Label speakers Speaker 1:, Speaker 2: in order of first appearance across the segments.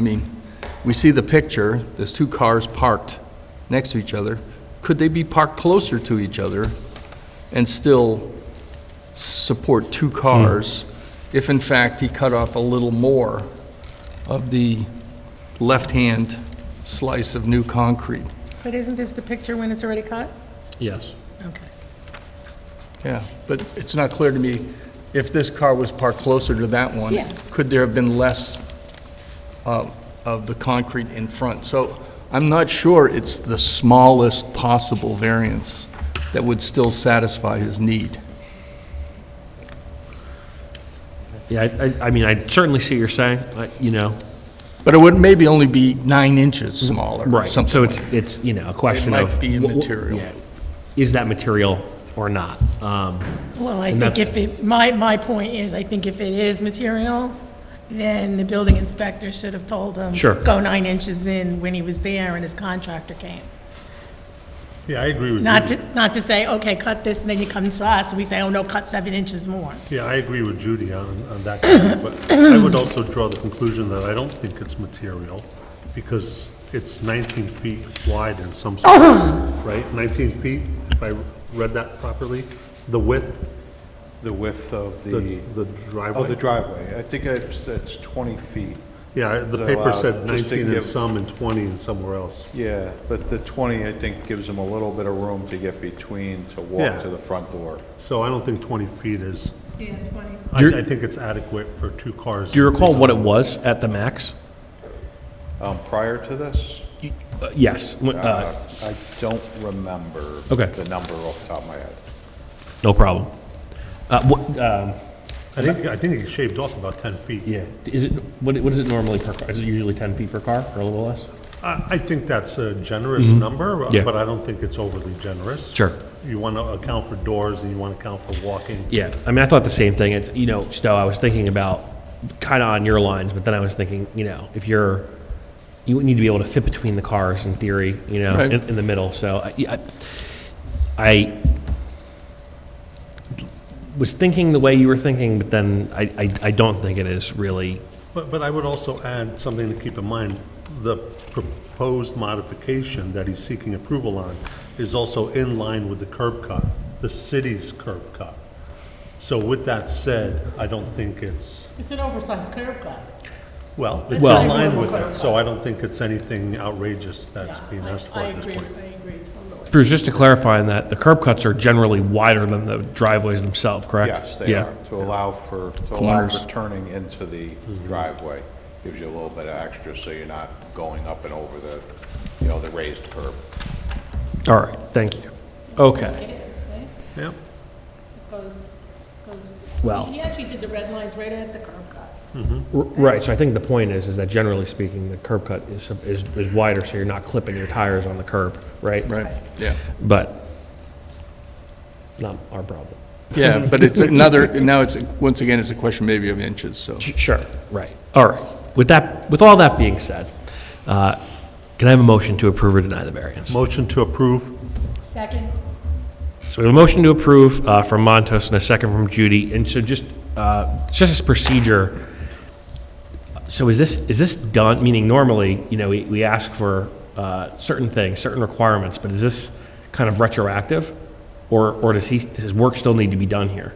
Speaker 1: I mean, we see the picture, there's two cars parked next to each other. Could they be parked closer to each other and still support two cars if in fact he cut off a little more of the left-hand slice of new concrete?
Speaker 2: But isn't this the picture when it's already cut?
Speaker 3: Yes.
Speaker 2: Okay.
Speaker 1: Yeah, but it's not clear to me, if this car was parked closer to that one,
Speaker 2: Yeah.
Speaker 1: could there have been less uh, of the concrete in front? So I'm not sure it's the smallest possible variance that would still satisfy his need.
Speaker 3: Yeah, I, I- I mean, I certainly see what you're saying, I- you know.
Speaker 1: But it would maybe only be nine inches smaller, or something
Speaker 3: So it's,
Speaker 1: like.
Speaker 3: it's, you know, a question
Speaker 1: might
Speaker 3: of.
Speaker 1: be
Speaker 3: wh- wh-
Speaker 1: immaterial.
Speaker 3: yeah, Is that material or not? Um,
Speaker 2: Well, I
Speaker 3: And
Speaker 2: think
Speaker 3: that's-
Speaker 2: if it, my, my point is, I think if it is material, then the building inspector should have told him.
Speaker 3: Sure.
Speaker 2: Go nine inches in when he was there and his contractor came.
Speaker 4: Yeah, I agree with
Speaker 2: Not
Speaker 4: Judy.
Speaker 2: to, not to say, okay, cut this, and then you come to us, we say, oh, no, cut seven inches more.
Speaker 4: Yeah, I agree with Judy on, on that, comment, but I would also draw the conclusion that I don't think it's material, because it's 19 feet wide in some spots, right? 19 feet, if I read that properly, the width,
Speaker 5: The width of
Speaker 4: the
Speaker 5: the,
Speaker 4: the
Speaker 5: of the
Speaker 4: driveway.
Speaker 5: driveway. I think it's, it's 20 feet.
Speaker 4: Yeah, the
Speaker 5: They're
Speaker 4: paper
Speaker 5: allowed,
Speaker 4: said
Speaker 5: just to
Speaker 4: 19 in
Speaker 5: give-
Speaker 4: some and 20 in somewhere else.
Speaker 5: Yeah, but the 20, I think, gives them a little bit of room to get between, to
Speaker 4: Yeah.
Speaker 5: walk to the front door.
Speaker 4: So I don't think 20 feet is,
Speaker 2: Yeah, twenty.
Speaker 4: I,
Speaker 3: You're-
Speaker 4: I think it's adequate for two cars.
Speaker 3: Do you recall what it was at the max?
Speaker 5: Um, Prior to this,
Speaker 3: Uh, Yes, w- uh,
Speaker 5: uh, I don't remember
Speaker 3: Okay.
Speaker 5: the number off the top of my head.
Speaker 3: no problem. Uh, what, um,
Speaker 4: I think, I think it shaved off about 10 feet.
Speaker 3: yeah, is it, what, what is it normally per car? Is it usually 10 feet per car or a little less?
Speaker 4: I, I think that's a generous number,
Speaker 3: Mm-hmm.
Speaker 4: uh,
Speaker 3: Yeah.
Speaker 4: but I don't think it's overly generous.
Speaker 3: Sure.
Speaker 4: You want to account for doors and you want to account for walking.
Speaker 3: Yeah, I mean, I thought the same thing. It's, you know, Stowe, I was thinking about kind of on your lines, but then I was thinking, you know, if you're, you would need to be able to fit between the cars in theory, you know,
Speaker 1: Right.
Speaker 3: in, in the middle. So I, yeah, I, I was thinking the way you were thinking, but then I, I, I don't think it is really.
Speaker 4: But, but I would also add something to keep in mind. The proposed modification that he's seeking approval on is also in line with the curb cut, the city's curb cut. So with that said, I don't think it's,
Speaker 2: It's an oversized curb cut.
Speaker 4: well, it's in
Speaker 2: Well-
Speaker 4: line with that. So I don't think it's anything outrageous that's
Speaker 2: Yeah,
Speaker 4: being
Speaker 2: I-
Speaker 4: asked for at this
Speaker 2: I
Speaker 4: point.
Speaker 2: agree, I agree totally.
Speaker 3: Bruce, just to clarify on that, the curb cuts are generally wider than the driveways themselves, correct?
Speaker 5: Yes, they
Speaker 3: Yeah.
Speaker 5: are, to allow for, to allow
Speaker 1: Corners.
Speaker 5: for turning into the driveway. Gives you a little bit of extra, so you're not going up and over the, you know, the raised curb.
Speaker 3: All right, thank you. Okay,
Speaker 4: Yeah,
Speaker 3: Well-
Speaker 2: He actually did the red lines right at the curb cut.
Speaker 3: R- right, so I think the point is, is that generally speaking, the curb cut is, is, is wider, so you're not clipping your tires on the curb, right?
Speaker 1: Right, yeah.
Speaker 3: But, not our problem.
Speaker 1: Yeah, but it's another, now it's, once again, it's a question maybe of inches, so.
Speaker 3: Sure. Right, all right. With that, with all that being said, uh, can I have a motion to approve or deny the variance?
Speaker 4: motion to approve.
Speaker 2: Second,
Speaker 3: So we have a motion to approve uh, from Montos and a second from Judy. And so just, uh, just as procedure, so is this, is this done, meaning normally, you know, we we ask for uh, certain things, certain requirements, but is this kind of retroactive? Or, or does he, does his work still need to be done here?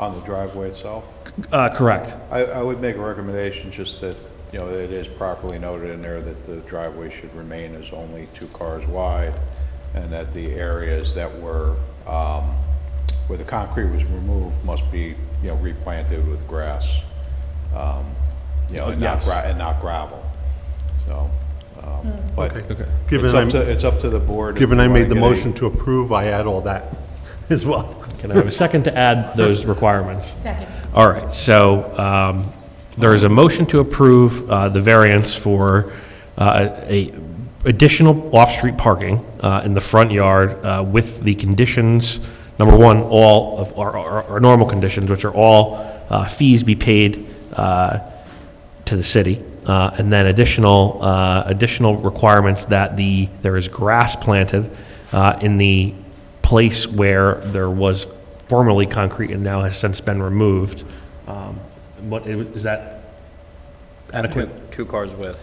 Speaker 5: On the driveway itself?
Speaker 3: Uh, Correct.
Speaker 5: I, I would make a recommendation just that, you know, that it is properly noted in there that the driveway should remain as only two cars wide, and that the areas that were, um, where the concrete was removed must be, you know, replanted with grass, um, you know, and not
Speaker 3: Yes.
Speaker 5: gra, and not gravel, so, um, but
Speaker 4: Okay.
Speaker 5: it's
Speaker 4: Hmm. Given
Speaker 5: up
Speaker 4: I'm,
Speaker 5: to, it's up to the board. if
Speaker 4: given
Speaker 5: you
Speaker 4: I
Speaker 5: wanna
Speaker 4: made the
Speaker 5: get a-
Speaker 4: motion to approve, I add all that as well.
Speaker 3: Can I have a second to add those requirements?
Speaker 2: second.
Speaker 3: All right, so um, there is a motion to approve uh, the variance for uh, a additional off-street parking uh, in the front yard uh, with the conditions, number one, all of our- our our normal conditions, which are all uh, fees be paid uh, to the city, uh, and then additional, uh, additional requirements that the, there is grass planted uh, in the place where there was formerly concrete and now has since been removed. Um, What, is that,
Speaker 6: adequate. Two cars width.